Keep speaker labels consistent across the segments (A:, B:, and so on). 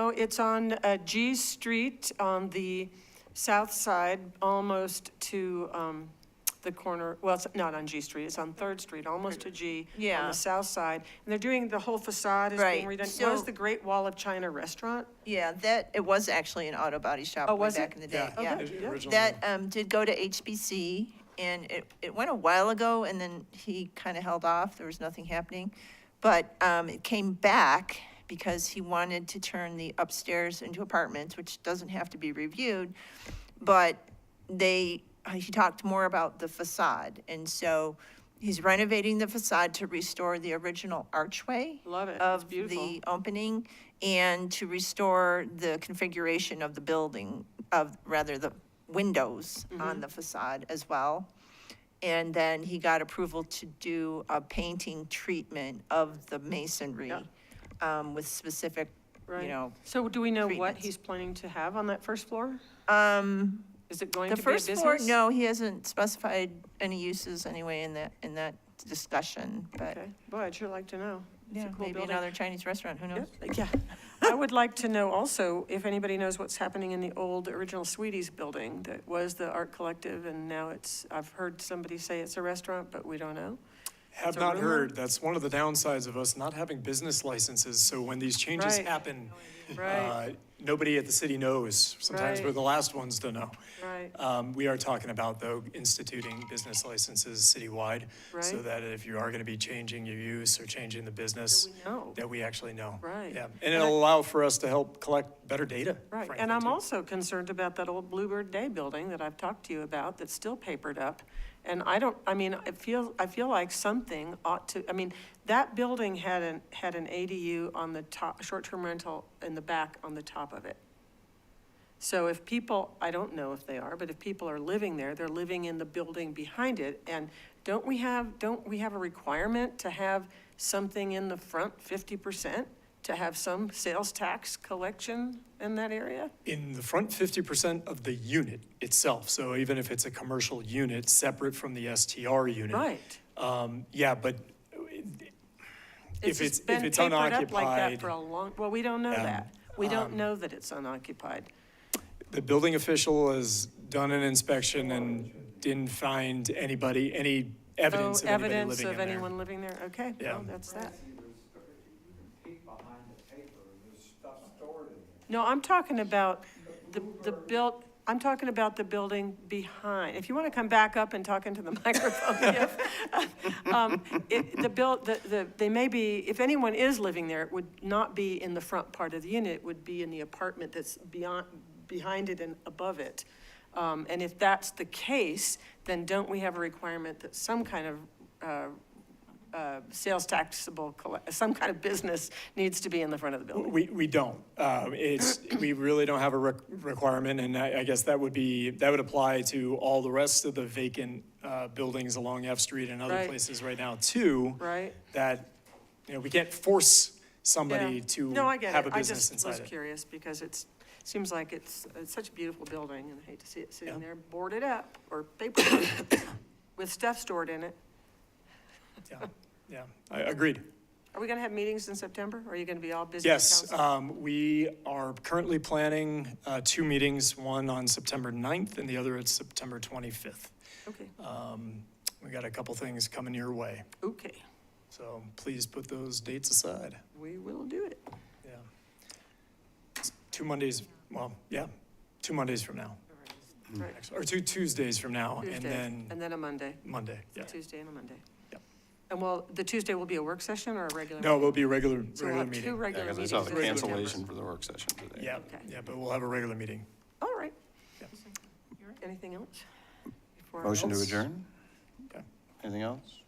A: No, it's on uh, G Street on the south side, almost to um, the corner, well, it's not on G Street, it's on Third Street, almost to G. On
B: Yeah.
A: the south side. And they're doing, the whole facade is being
B: Right,
A: redone.
B: so-
A: Was the Great Wall of China Restaurant?
B: Yeah, that, it was actually an auto body shop
A: Oh,
B: way
A: was
B: back
A: it?
B: in the day,
A: Yeah,
B: yeah.
A: okay.
C: It originally-
B: That um, did go to HBC, and it, it went a while ago, and then he kind of held off, there was nothing happening. But um, it came back because he wanted to turn the upstairs into apartments, which doesn't have to be reviewed. But they, uh, he talked more about the facade, and so he's renovating the facade to restore the original archway
A: Love it. It's
B: of
A: beautiful.
B: the opening and to restore the configuration of the building, of, rather, the windows
A: Mm-hmm.
B: on the facade as well. And then he got approval to do a painting treatment of the masonry um, with specific,
A: Right.
B: you know,
A: So do we know what
B: treatments.
A: he's planning to have on that first floor?
B: um,
A: Is it going
B: the
A: to be a
B: first floor,
A: business?
B: no, he hasn't specified any uses anyway in that, in that discussion, but
A: Okay, boy, I'd sure like to know. It's a
B: yeah,
A: cool
B: maybe
A: building.
B: another Chinese restaurant, who knows?
A: Yeah, I would like to know also if anybody knows what's happening in the old original Sweeties building that was the art collective and now it's, I've heard somebody say it's a restaurant, but we don't know.
C: Have
A: a
C: not
A: rumor.
C: heard, that's one of the downsides of us not having business licenses, so when these changes
A: Right.
C: happen,
A: Right,
C: uh, nobody at the city knows. Sometimes we're
A: Right.
C: the last ones to know.
A: right,
C: Um, We are talking about, though, instituting business licenses citywide, so
A: Right.
C: that if you are going to be changing your use or changing the business,
A: no,
C: that we actually know.
A: Right.
C: Yeah, and it'll allow for us to help collect better data,
A: right.
C: frankly,
A: And I'm
C: too.
A: also concerned about that old Bluebird Day building that I've talked to you about that's still papered up. And I don't, I mean, I feel, I feel like something ought to, I mean, that building had an, had an ADU on the top, short-term rental in the back on the top of it. So if people, I don't know if they are, but if people are living there, they're living in the building behind it. And don't we have, don't we have a requirement to have something in the front fifty percent? To have some sales tax collection in that area?
C: In the front fifty percent of the unit itself, so even if it's a commercial unit, separate from the STR unit.
A: Right.
C: Um, yeah, but if
A: just
C: it's, if
A: been
C: it's
A: papered up like that
C: unoccupied,
A: For a long, well, we don't know
C: um,
A: that. We don't know that it's unoccupied.
C: the building official has done an inspection and didn't find anybody, any
A: No
C: evidence of anybody living in there.
A: evidence of anyone living there, okay,
C: Yeah.
A: well, that's that.
D: See, there's, you can peek behind the paper, and there's stuff stored in there.
A: No, I'm talking about the, the built, I'm talking about the building behind. If you want to come back up and talk into the microphone, Jeff. Um, It, the build, the, the, they may be, if anyone is living there, it would not be in the front part of the unit, it would be in the apartment that's beyond, behind it and above it. Um, and if that's the case, then don't we have a requirement that some kind of, uh, uh, sales taxable, colle- some kind of business needs to be in the front of the building?
C: We, we don't. Um, It's, we really don't have a req- requirement, and I I guess that would be, that would apply to all the rest of the vacant uh, buildings along F Street and other
A: Right.
C: places right now, too.
A: Right.
C: That, you know, we can't force
A: Yeah.
C: somebody to
A: No, I get
C: have
A: it.
C: a
A: I
C: business inside
A: just was
C: it.
A: curious because it's, seems like it's, it's such a beautiful building and I hate to see it sitting
C: Yeah.
A: there boarded up or paper with stuff stored in it.
C: Yeah, Yeah, I- agreed.
A: Are we going to have meetings in September? Are you going to be all busy? with
C: Yes,
A: council?
C: um, we are currently planning uh, two meetings, one on September 9th and the other at September 25th.
A: Okay,
C: Um, We got a couple things coming your way,
A: okay,
C: so please put those dates aside.
A: we will do it.
C: Yeah. It's Two Mondays, well, yeah, two Mondays from now,
A: Right.
C: actually, or two Tuesdays from now, Mm. and
A: Tuesday,
C: then
A: And then a Monday,
C: Monday,
A: a
C: yeah.
A: Tuesday and a Monday.
C: Yep.
A: And well, the Tuesday will be a work session or a regular?
C: No,
A: meeting?
C: it will be a regular,
A: So we'll
C: regular
A: have two
C: meeting.
E: Yeah,
A: regular
E: because I
A: meetings.
E: saw the
A: in September.
E: cancellation for the work session today.
C: Yeah,
A: Okay.
C: yeah, but we'll have a regular meeting.
A: All right.
C: Yeah.
A: Anything else? Before I-
E: Motion to
C: else?
E: adjourn?
C: Okay.
E: Anything else?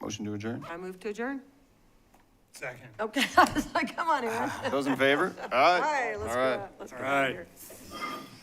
E: Motion to adjourn?
A: I move to adjourn?
C: Second.
A: Okay, I was like, come on, Aaron.
E: Those in favor? All right.
A: All right, let's go.
E: All right.
A: out. Let's
C: All
A: go out
C: right.
A: here.